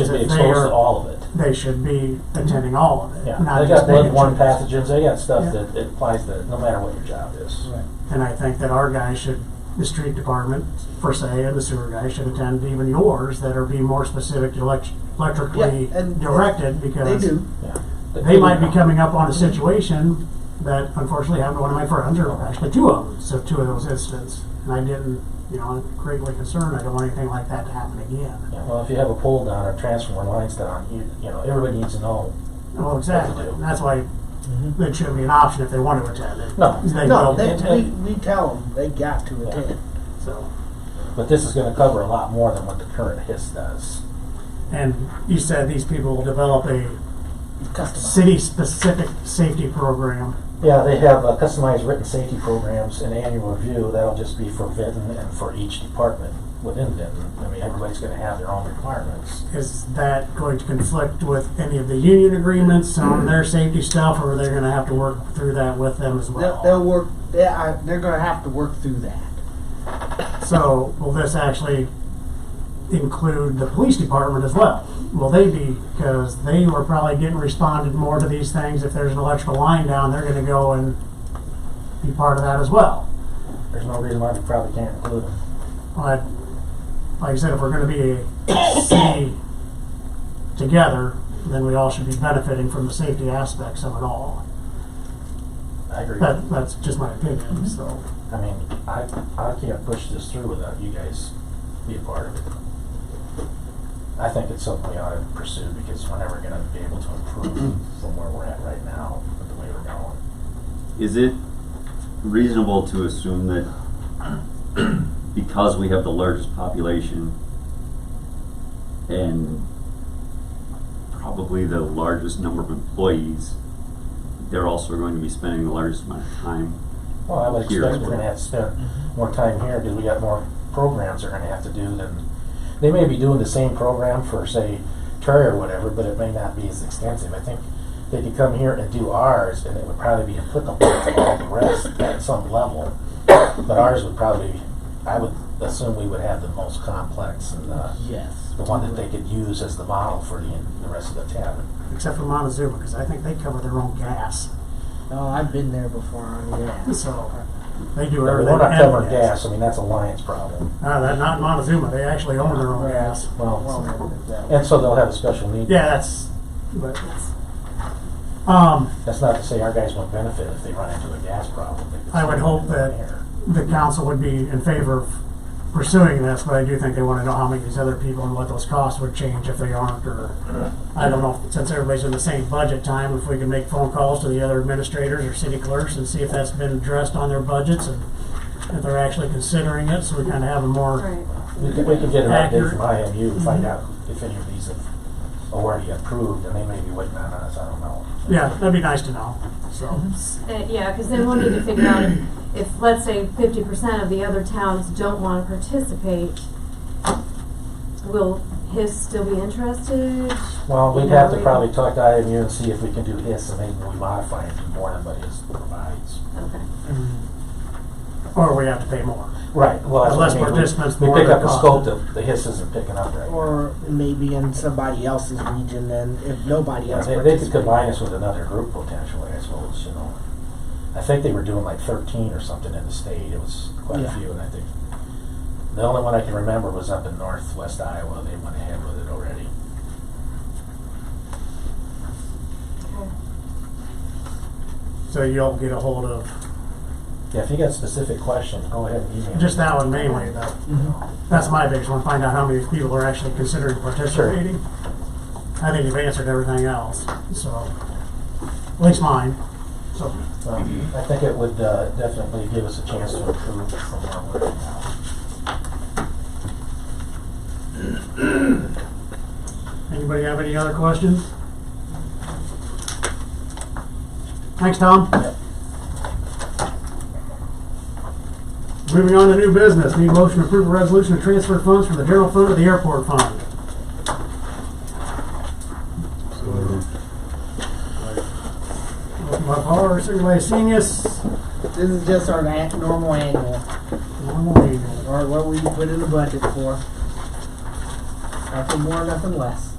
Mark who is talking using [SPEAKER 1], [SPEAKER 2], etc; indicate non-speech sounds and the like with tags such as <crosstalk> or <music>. [SPEAKER 1] is
[SPEAKER 2] should be
[SPEAKER 1] if
[SPEAKER 2] exposed to
[SPEAKER 1] they're,
[SPEAKER 2] all of it.
[SPEAKER 1] they should be attending all of it,
[SPEAKER 2] Yeah,
[SPEAKER 1] not
[SPEAKER 2] they
[SPEAKER 1] just
[SPEAKER 2] got
[SPEAKER 1] negative.
[SPEAKER 2] blood borne pathogens, they got
[SPEAKER 1] Yeah.
[SPEAKER 2] stuff that that applies to, no matter what your job is.
[SPEAKER 1] And I think that our guys should, the street department per se, and the sewer guys should attend even yours that are be more specific to elect- electrically
[SPEAKER 3] Yeah, and-
[SPEAKER 1] directed
[SPEAKER 3] They
[SPEAKER 1] because
[SPEAKER 3] do.
[SPEAKER 2] Yeah.
[SPEAKER 1] they might be coming up on a situation that unfortunately happened to one of my friends, or actually two of them, so two of those incidents. And I didn't, you know, I'm greatly concerned, I don't want anything like that to happen again.
[SPEAKER 2] Yeah, well, if you have a pole down or transformer lines down, you, you know, everybody needs to know.
[SPEAKER 1] Well, exactly, and that's why it shouldn't be an option if they want to attend it.
[SPEAKER 2] No.
[SPEAKER 1] They
[SPEAKER 3] No,
[SPEAKER 1] will
[SPEAKER 3] they,
[SPEAKER 1] attend,
[SPEAKER 3] we, we tell them they got to attend.
[SPEAKER 1] so.
[SPEAKER 2] But this is gonna cover a lot more than what the current HIS does.
[SPEAKER 1] And you said these people will develop a
[SPEAKER 3] Customer.
[SPEAKER 1] city-specific safety program.
[SPEAKER 2] Yeah, they have uh, customized written safety programs and annual review, that'll just be for Vinton and for each department within Vinton. I mean, everybody's gonna have their own requirements.
[SPEAKER 1] Is that going to conflict with any of the union agreements on
[SPEAKER 3] Mm-hmm.
[SPEAKER 1] their safety stuff, or are they gonna have to work through that with them as
[SPEAKER 3] They'll,
[SPEAKER 1] well?
[SPEAKER 3] they'll work, they are, they're gonna have to work through that.
[SPEAKER 1] So, will this actually include the police department as well? Will they be, because they were probably getting responded more to these things, if there's an electrical line down, they're gonna go and be part of that as well.
[SPEAKER 2] There's no reason why we probably can't include them.
[SPEAKER 1] But like I said, if we're going to be a <coughs> city together, then we all should be benefiting from the safety aspects of it all.
[SPEAKER 2] I agree. I
[SPEAKER 1] That, that's just my opinion. So
[SPEAKER 2] mean, I, I can't push this through without you guys being part of it. I think it's something we ought to pursue because we're never gonna be able to improve from where we're at right now with the way we're going.
[SPEAKER 4] Is it reasonable to assume that because we have the largest population and probably the largest number of employees, they're also going to be spending the largest amount of time?
[SPEAKER 2] Well, I would
[SPEAKER 4] Here
[SPEAKER 2] expect
[SPEAKER 4] as
[SPEAKER 2] we're
[SPEAKER 4] well.
[SPEAKER 2] gonna have to spend more time here because we got more programs they're gonna have to do than, they may be doing the same program for, say, Troy or whatever, but it may not be as extensive. I think they could come here and do ours and it would probably be applicable to all the rest at some level. But ours would probably, I would assume we would have the most complex and uh,
[SPEAKER 3] Yes.
[SPEAKER 2] the one that they could use as the model for the, the rest of the town.
[SPEAKER 1] except for Montezuma, because I think they cover their own gas.
[SPEAKER 3] No, Oh, I've been there before on gas.
[SPEAKER 1] So they do
[SPEAKER 2] We're
[SPEAKER 1] everything.
[SPEAKER 2] not
[SPEAKER 1] and
[SPEAKER 2] covering gas, I mean, that's a Lions problem.
[SPEAKER 1] No, that not Montezuma. They actually own their own gas.
[SPEAKER 2] Well,
[SPEAKER 3] Well, that-
[SPEAKER 2] and so they'll have a special need.
[SPEAKER 1] Yeah, that's. But um,
[SPEAKER 2] That's not to say our guys won't benefit if they run into a gas problem.
[SPEAKER 1] I would hope that- the council would be in favor of pursuing this, but I do think they want to know how many of these other people and what those costs would change if they aren't, or, I don't know, since everybody's in the same budget time, if we can make phone calls to the other administrators or city clerks and see if that's been addressed on their budgets and if they're actually considering it, so we kind of have a more,
[SPEAKER 5] Right.
[SPEAKER 2] We could, we could get an update from
[SPEAKER 1] Accurate.
[SPEAKER 2] IMU, to find out if any of these have already approved, and they may be waiting on us, I don't know.
[SPEAKER 1] yeah, that'd be nice to know, so.
[SPEAKER 5] Uh, yeah, because then we'll need to figure out if, if, let's say, fifty percent of the other towns don't want to participate, will HIS still be interested?
[SPEAKER 2] Well, we'd
[SPEAKER 5] You know,
[SPEAKER 2] have to
[SPEAKER 5] we-
[SPEAKER 2] probably talk to IMU and see if we can do this, and maybe we modify it to more than what is provides.
[SPEAKER 5] Okay.
[SPEAKER 1] Or we have to pay more.
[SPEAKER 2] Right, well, that's
[SPEAKER 1] Less
[SPEAKER 2] what I mean. We-
[SPEAKER 1] participants,
[SPEAKER 2] We
[SPEAKER 1] more
[SPEAKER 2] pick up the
[SPEAKER 1] cost.
[SPEAKER 2] scope that the HIS isn't picking up right now.
[SPEAKER 3] Or maybe in somebody else's region and if nobody
[SPEAKER 2] Yeah,
[SPEAKER 3] else
[SPEAKER 2] they, they could
[SPEAKER 3] participates.
[SPEAKER 2] combine us with another group potentially, I suppose, you know. I think they were doing like thirteen or something in the state, it was quite a
[SPEAKER 3] Yeah.
[SPEAKER 2] few, and I think, the only one I can remember was up in northwest Iowa, they went ahead with it already.
[SPEAKER 1] So you'll get a hold of,
[SPEAKER 2] Yeah, if you got specific questions, go ahead and email.
[SPEAKER 1] just
[SPEAKER 2] me.
[SPEAKER 1] that one mainly, though. That's my biggest one, find out how many people are actually considering participating. I think you've answered everything else, so, at least mine, so.
[SPEAKER 2] Um, I think it would uh, definitely give us a chance to improve from where we're at now.
[SPEAKER 1] Anybody have any other questions? Thanks, Tom. Moving on to new business, need a motion to approve a resolution to transfer funds from the general fund to the airport fund. Motion by Par, second by Seamus.
[SPEAKER 3] This is just our an- normal annual,
[SPEAKER 1] Normal.
[SPEAKER 3] or what we put in the budget for. Nothing more, nothing less.